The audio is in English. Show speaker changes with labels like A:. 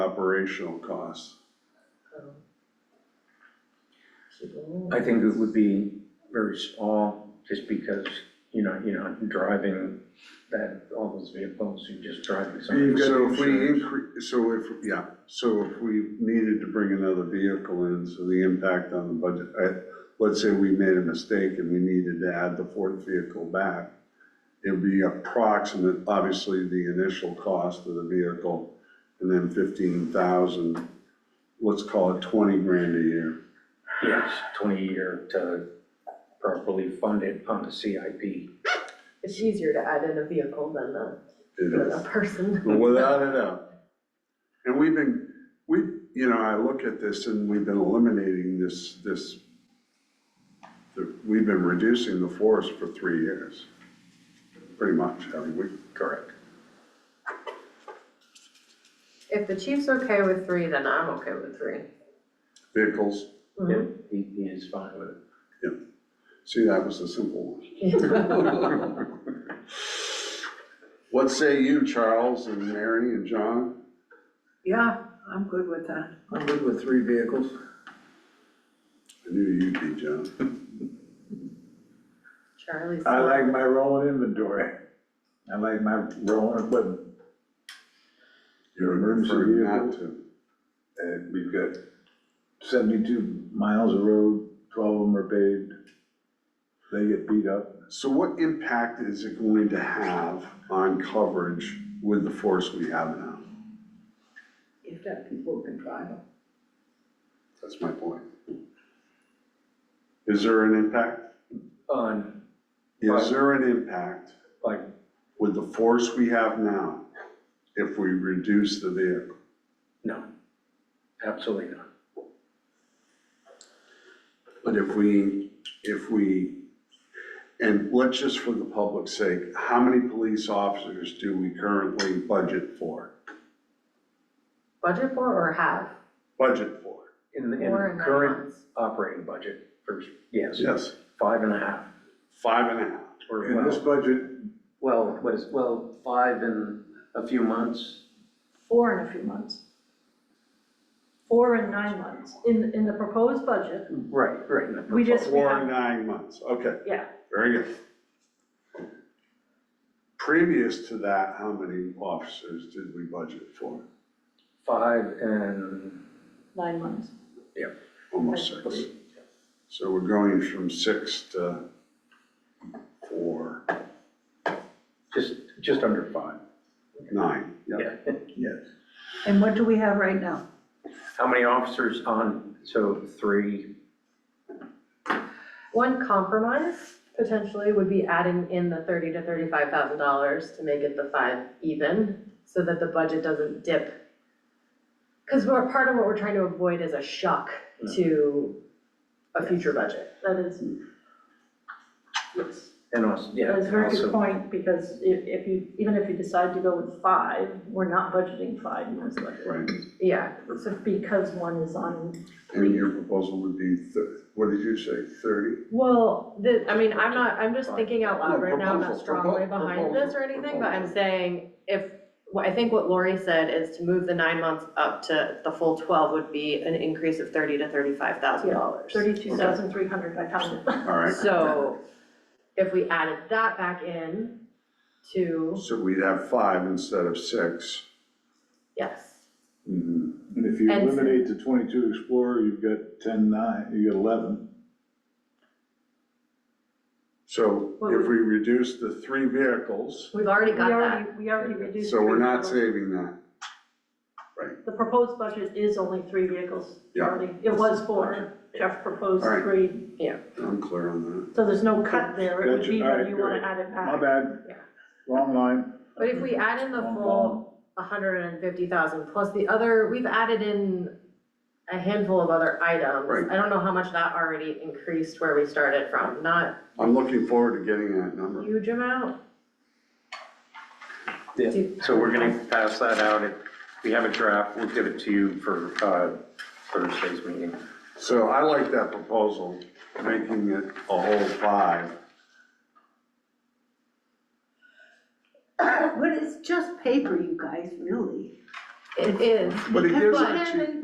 A: operational costs.
B: um, keep it moving.
C: I think it would be very small, just because, you know, you're not driving that, all those vehicles, you're just driving some.
A: So
C: of the
A: if we
C: insurance.
A: increase, so if, yeah, so if we needed to bring another vehicle in, so the impact on the budget, I, let's say we made a mistake and we needed to add the fourth vehicle back, it'd be approximate, obviously, the initial cost of the vehicle, and then fifteen thousand, let's call it twenty grand a year.
C: Yes, twenty year to properly fund it on the CIP.
B: It's easier to add in a vehicle than a,
A: It
B: than
A: is.
B: a person.
A: Without a doubt. And we've been, we, you know, I look at this and we've been eliminating this, this, the- we've been reducing the forest for three years, pretty much, haven't we?
C: Correct.
D: If the chief's okay with three, then I'm okay with three.
A: Vehicles,
B: Mm-hmm.
C: Yeah, he, he is fine with it.
A: see, that was a simple one.
B: Mhm.
A: What say you, Charles and Mary and John?
E: Yeah, I'm good with that.
C: I'm good with three vehicles.
A: I knew you'd be, John.
D: Charlie's.
F: I like my rolling inventory. I like my rolling equipment.
A: You're
F: Emergency
A: referring not to.
F: And we've got seventy-two miles of road, twelve of them are paved. They get beat up.
A: So what impact is it going to have on coverage with the force we have now?
E: If that people who can drive them.
A: That's my point. Is there an impact?
C: On,
A: Is there an impact
C: Um, like,
A: with the force we have now if we reduce the vehicle?
C: no, absolutely not.
A: But if we, if we, and let's just for the public's sake, how many police officers do we currently budget for?
D: Budget for or have,
A: Budget for?
C: In the, in
D: or in
C: the
D: nine
C: current
D: months.
C: operating budget, first, yes,
A: Yes,
C: five and a half,
A: five and a half.
C: or
F: In this
C: well,
F: budget,
C: well, what is, well, five in a few months.
G: four in a few months. Four and nine months. In, in the proposed budget,
C: Right, right.
G: We just-
A: Four and nine months, okay,
G: yeah,
A: very good. Previous to that, how many officers did we budget for?
C: Five and,
G: nine months.
A: Almost six. So we're going from six to four,
C: just, just under five.
A: nine, yeah,
C: Yeah.
A: yes.
E: And what do we have right now?
C: How many officers on, so three,
D: One compromise potentially would be adding in the thirty to thirty-five thousand dollars to make it the five even, so that the budget doesn't dip. Cause we're, part of what we're trying to avoid is a shock to a future budget.
G: That is, yes,
C: and also, yeah.
G: that's a very good
C: also-
G: point, because if, if you, even if you decide to go with five, we're not budgeting five in this budget.
A: Right,
D: Yeah,
G: So because one is on,
A: and your proposal would be, thir- what did you say, thirty?
D: well, the, I mean, I'm not, I'm just thinking out loud
A: No,
D: right now, I'm not
A: proposal,
D: strongly
A: propo-
D: behind this or
A: proposal,
D: anything, but I'm
A: proposal.
D: saying if, what- I think what Lori said is to move the nine months up to the full twelve would be an increase of thirty to thirty-five thousand dollars.
G: thirty-two thousand three hundred, I counted.
A: All right.
D: So if we added that back in to,
A: So we'd have five instead of six.
D: yes,
A: Mhm.
F: and if you
D: And-
F: eliminate the twenty-two Explorer, you've got ten nine, you got eleven.
A: So
G: What
A: if
G: would-
A: we reduce the three vehicles,
D: we've already
G: We
D: got that.
G: already, we already reduced.
A: so we're
G: three
A: not
G: vehicles.
A: saving that.
G: The proposed budget is only three vehicles.
A: Yeah.
G: already. It was four, Jeff proposed
A: All right.
G: three,
A: I'm clear on that.
G: so there's no cut there, it would
F: Gotcha.
G: be
F: All
G: when
F: right,
G: you wanna
F: great.
G: add it back.
F: My bad,
D: Yeah.
F: wrong line.
D: But if we add in the
F: Wrong
D: full hundred and fifty thousand plus the other, we've added in a handful of other items.
A: Right.
D: I don't know how much that already increased where we started from, not
A: I'm looking forward to getting that
D: a
A: number.
D: huge amount.
C: Yeah,
D: Do-
C: so we're gonna pass that out, If we have a draft, we'll give it to you for, uh, Thursday's meeting.
A: So I like that proposal, making it a whole five.
E: But it's just paper, you guys, really.
D: It is.
A: But it
D: because-
A: gives
D: but-
A: it to-